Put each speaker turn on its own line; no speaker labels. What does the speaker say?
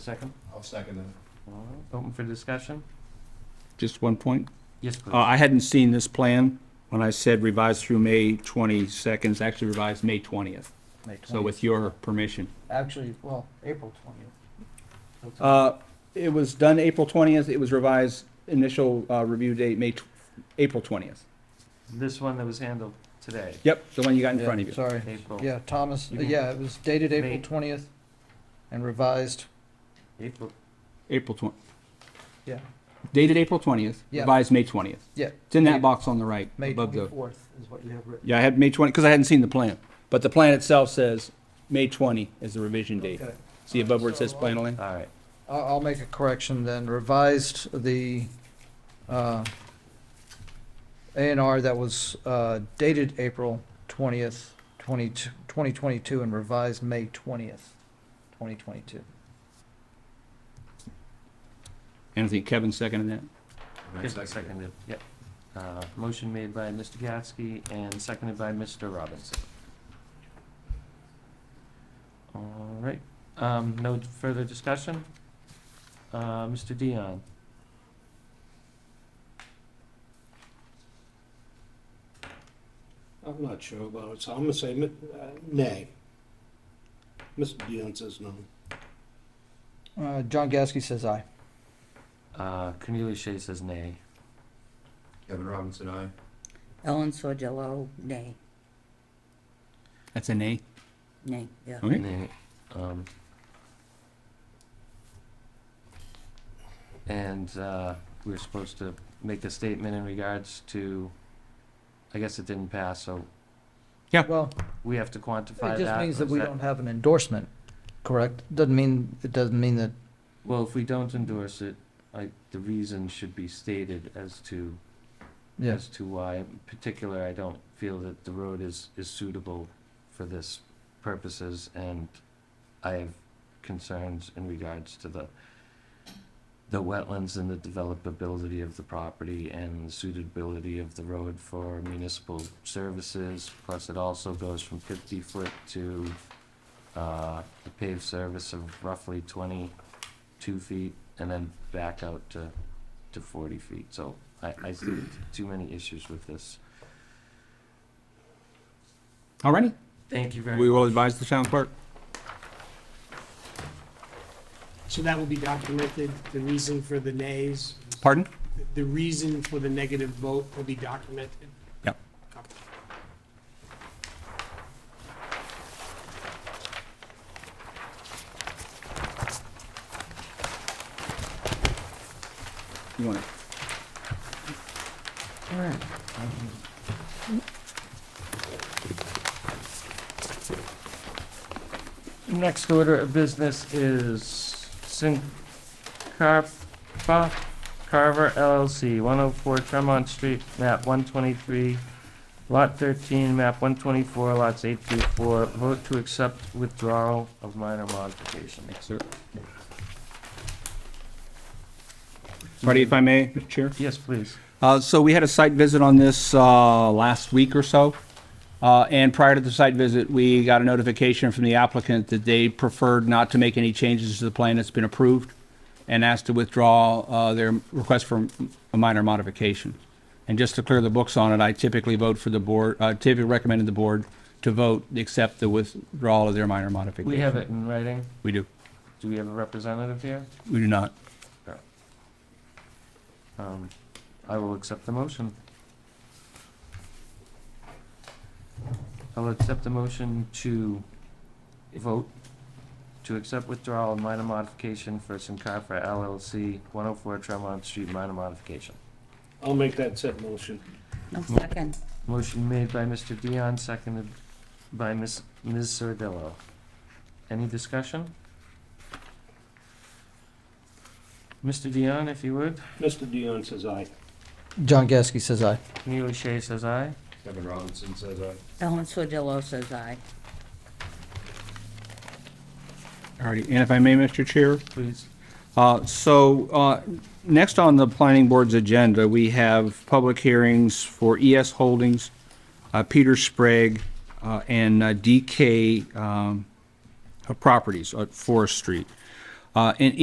Second,
I'll second that.
all right, open for discussion?
Just one point.
Yes,
Uh,
please.
I hadn't seen this plan when I said revised through May 22nd, it's actually revised May 20th.
May
So
20th.
with your permission.
Actually, well, April 20th. What's up?
Uh, It was done April 20th. It was revised initial uh, review date, May, tw- April 20th.
This one that was handled today,
Yep, the one you got in front of
Yeah,
you.
Sorry.
Oh.
April,
Yeah, Thomas,
You can-
yeah, it was dated
May.
April 20th and revised,
April,
April 20th,
yeah,
dated April 20th,
Yeah.
revised May 20th.
yeah,
It's in
May-
that box on the right,
May
above the,
24th is what you have written.
yeah, I had May 20, because I hadn't seen the plan. But the plan itself says May 20 is the revision date.
Okay.
See above where it says plan only?
all right,
I'll, I'll make a correction then, revised the, uh, A and R that was, uh, dated April twentieth, twenty, twenty twenty-two, and revised May twentieth, twenty twenty-two.
And I think Kevin seconded that.
yes, seconded, yep. Uh, motion made by Mr. Gatsky and seconded by Mr. Robinson. All right, um, no further discussion? Uh, Mr. Dion,
I'm not sure about it, so I'm gonna say mi- uh, nay. Mr. Dion says no.
Uh, John Gasky says aye.
uh, Cornelius Shea says nay.
Kevin Robinson, aye.
Ellen Sordillo, nay,
That's a nay?
nay, yeah.
Okay.
Nay, um, And uh, we were supposed to make a statement in regards to, I guess it didn't pass, so
Well,
we have to quantify
it
that.
just means
or
that
is
we don't have an endorsement, correct? Doesn't mean, it doesn't mean that,
Well, if we don't endorse it, I, the reason should be stated as to,
yes,
as to why. In particular, I don't feel that the road is, is suitable for this purposes, and I have concerns in regards to the, the wetlands and the developability of the property and the suitability of the road for municipal services. Plus, it also goes from fifty foot to, uh, a paved service of roughly twenty-two feet and then back out to, to forty feet. So I, I see too many issues with this.
All righty.
Thank you very much.
We will advise the town clerk.
So that will be documented, the reason for the nays,
Pardon?
the reason for the negative vote will be documented.
Yep. You want to?
Next order of business is Sincarpa Carver LLC, 104 Tremont Street, map 123, lot 13, map 124, lots 8 through 4. Vote to accept withdrawal of minor modification.
Sir. Marty, if I may, Mr. Chair?
Yes, please.
Uh, So we had a site visit on this uh, last week or so. Uh, And prior to the site visit, we got a notification from the applicant that they preferred not to make any changes to the plan that's been approved and asked to withdraw uh, their request for a minor modification. And just to clear the books on it, I typically vote for the board, uh, typically recommended the board to vote, accept the withdrawal of their minor modification.
We have it in writing.
We do.
Do we have a representative here?
We do not.
Um, I will accept the motion. I'll accept the motion to vote to accept withdrawal and minor modification for Sincarfa LLC, 104 Tremont Street, minor modification.
I'll make that said motion.
No second,
Motion made by Mr. Dion, seconded by Ms. Ms. Sardillo. Any discussion? Mr. Dion, if you would.
Mr. Dion says aye.
John Gasky says aye.
Neil O'Shea says aye.
Kevin Robinson says aye.
Ellen Sordillo says aye.
All righty. And if I may, Mr. Chair?
Please.
Uh, So, uh, next on the planning board's agenda, we have public hearings for ES Holdings, uh, Peter Sprague, uh, and uh, DK um, uh, Properties at Forest Street. Uh, And